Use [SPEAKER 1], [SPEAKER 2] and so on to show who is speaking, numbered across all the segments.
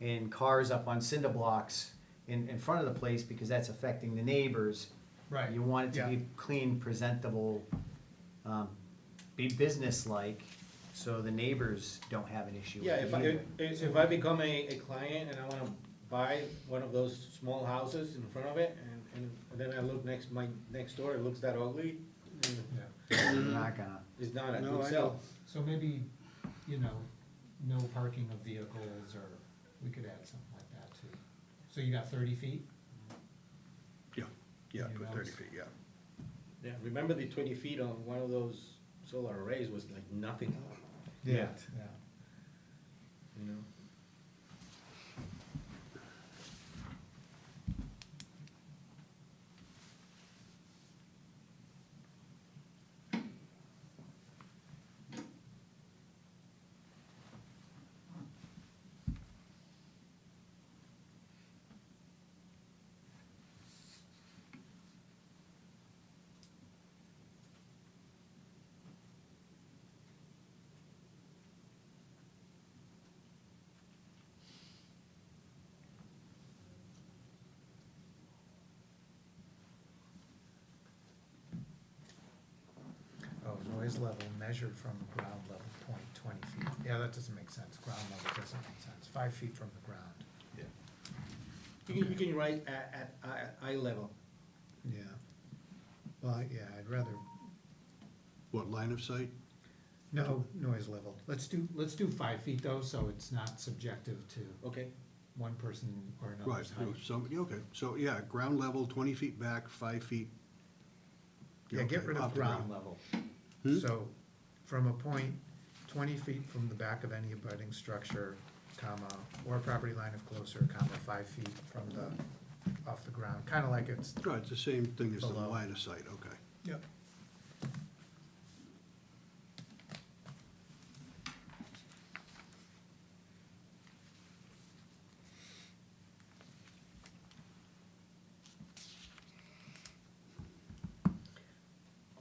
[SPEAKER 1] and cars up on cinder blocks in, in front of the place because that's affecting the neighbors.
[SPEAKER 2] Right,
[SPEAKER 1] You want it to
[SPEAKER 2] yeah.
[SPEAKER 1] be clean, presentable, um, be businesslike, so the neighbors don't have an issue with
[SPEAKER 3] Yeah,
[SPEAKER 1] it
[SPEAKER 3] if I,
[SPEAKER 1] either.
[SPEAKER 3] if if I become a, a client and I wanna buy one of those small houses in front of it, and, and then I look next, my, next door, it looks that ugly, mm,
[SPEAKER 2] yeah.
[SPEAKER 1] They're not gonna,
[SPEAKER 3] it's not a
[SPEAKER 4] No,
[SPEAKER 3] good
[SPEAKER 4] I
[SPEAKER 3] sell.
[SPEAKER 2] So maybe, you know, no parking of vehicles, or we could add something like that too. So you got thirty feet?
[SPEAKER 4] Yeah, yeah,
[SPEAKER 2] Maybe
[SPEAKER 4] put
[SPEAKER 2] that
[SPEAKER 4] thirty
[SPEAKER 2] was-
[SPEAKER 4] feet, yeah.
[SPEAKER 3] Yeah, remember the twenty feet on one of those solar arrays was like nothing,
[SPEAKER 1] Yeah.
[SPEAKER 2] Yeah.
[SPEAKER 3] you know?
[SPEAKER 2] Oh, noise level measured from ground level, point twenty feet. Yeah, that doesn't make sense. Ground level doesn't make sense. Five feet from the ground.
[SPEAKER 3] You can, you can write at, at eye, eye level.
[SPEAKER 2] Yeah. Well, yeah, I'd rather,
[SPEAKER 4] What, line of sight?
[SPEAKER 2] no noise level. Let's do, let's do five feet though, so it's not subjective to
[SPEAKER 3] Okay,
[SPEAKER 2] one person or
[SPEAKER 4] Right,
[SPEAKER 2] another's
[SPEAKER 4] you know,
[SPEAKER 2] height.
[SPEAKER 4] so, yeah, okay, so, yeah, ground level, twenty feet back, five feet.
[SPEAKER 5] Yeah, get
[SPEAKER 4] okay,
[SPEAKER 5] rid of
[SPEAKER 4] off the
[SPEAKER 5] ground level.
[SPEAKER 4] Hmm?
[SPEAKER 5] So, from a point twenty feet from the back of any abutting structure, comma, or property line of closer, comma, five feet from the, off the ground, kinda like it's.
[SPEAKER 4] Right, it's the same thing as the
[SPEAKER 5] Below.
[SPEAKER 4] line of sight, okay.
[SPEAKER 5] Yep.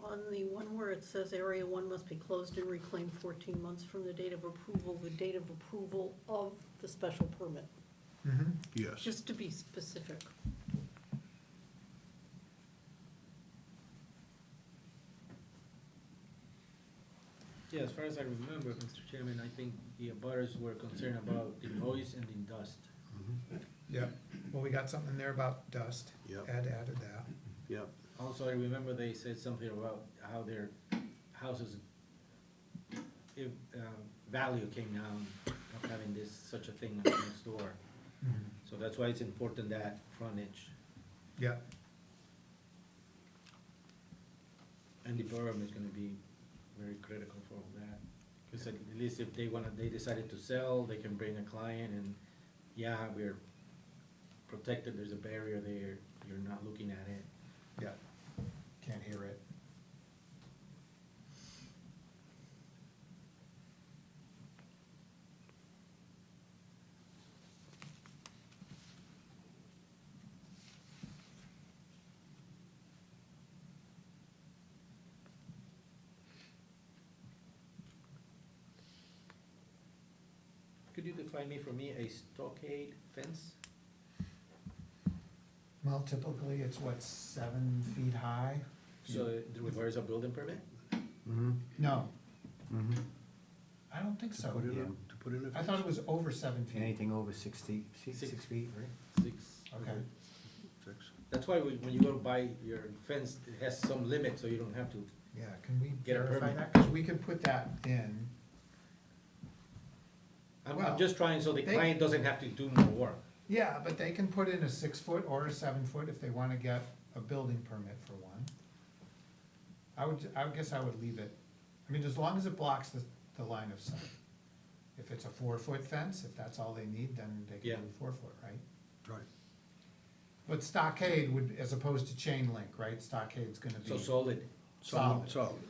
[SPEAKER 6] On the one where it says area one must be closed and reclaimed fourteen months from the date of approval, the date of approval of the special permit,
[SPEAKER 5] Mm-hmm.
[SPEAKER 4] Yes,
[SPEAKER 6] just to be specific.
[SPEAKER 3] yeah, as far as I remember, Mr. Chairman, I think the abutters were concerned about the noise and the dust.
[SPEAKER 5] Yep, well, we got something there about dust.
[SPEAKER 4] Yep.
[SPEAKER 5] Ed added that.
[SPEAKER 4] yep,
[SPEAKER 3] Also, I Oh, remember they said something about how their houses, if, um, value came down of having this, such a thing next door.
[SPEAKER 4] Mm-hmm.
[SPEAKER 3] So that's why it's important that frontage
[SPEAKER 5] Yep,
[SPEAKER 3] and the berm is gonna be very critical for all that. Cause at least if they wanna, they decided to sell, they can bring a client and, yeah, we're protected, there's a barrier there, you're not looking at it.
[SPEAKER 5] yep.
[SPEAKER 2] Can't hear it.
[SPEAKER 3] Could you define me for me a stockade fence?
[SPEAKER 2] Well, typically, it's what, seven feet high?
[SPEAKER 3] So it requires a building permit?
[SPEAKER 2] No,
[SPEAKER 4] mm-hmm,
[SPEAKER 2] I don't think
[SPEAKER 4] to
[SPEAKER 2] so.
[SPEAKER 4] put in,
[SPEAKER 1] yeah.
[SPEAKER 4] a- to put in a
[SPEAKER 2] I thought it
[SPEAKER 4] fence,
[SPEAKER 2] was over seven feet.
[SPEAKER 1] anything over sixty, six,
[SPEAKER 3] Six.
[SPEAKER 1] six feet, right?
[SPEAKER 3] Six.
[SPEAKER 2] Okay,
[SPEAKER 4] six,
[SPEAKER 3] That's why when when you go to buy your fence, it has some limit, so you don't have to.
[SPEAKER 2] yeah, can we
[SPEAKER 3] Get a
[SPEAKER 2] verify
[SPEAKER 3] permit.
[SPEAKER 2] that? Because we could put that in.
[SPEAKER 3] I'm,
[SPEAKER 2] Well,
[SPEAKER 3] I'm just trying so the
[SPEAKER 2] they-
[SPEAKER 3] client doesn't have to do more work.
[SPEAKER 2] Yeah, but they can put in a six foot or a seven foot if they want to get a building permit for one. I would, I would guess I would leave it. I mean, as long as it blocks the, the line of sight. If it's a four foot fence, if that's all they need, then they
[SPEAKER 3] Yeah.
[SPEAKER 2] can do four foot, right?
[SPEAKER 4] right,
[SPEAKER 2] But stockade would, as opposed to chain link, right? Stockade's gonna be
[SPEAKER 3] So solid,
[SPEAKER 2] solid.
[SPEAKER 4] solid, solid,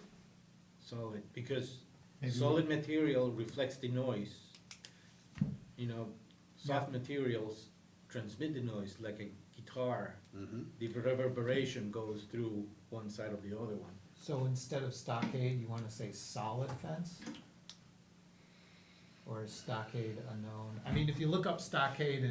[SPEAKER 3] solid, because
[SPEAKER 2] Maybe we-
[SPEAKER 3] solid material reflects the noise. You know, soft materials transmit the noise like a guitar.
[SPEAKER 4] mm-hmm,
[SPEAKER 3] The reverberation goes through one side of the other one.
[SPEAKER 2] So instead of stockade, you wanna say solid fence? or stockade unknown. I mean, if you look up stockade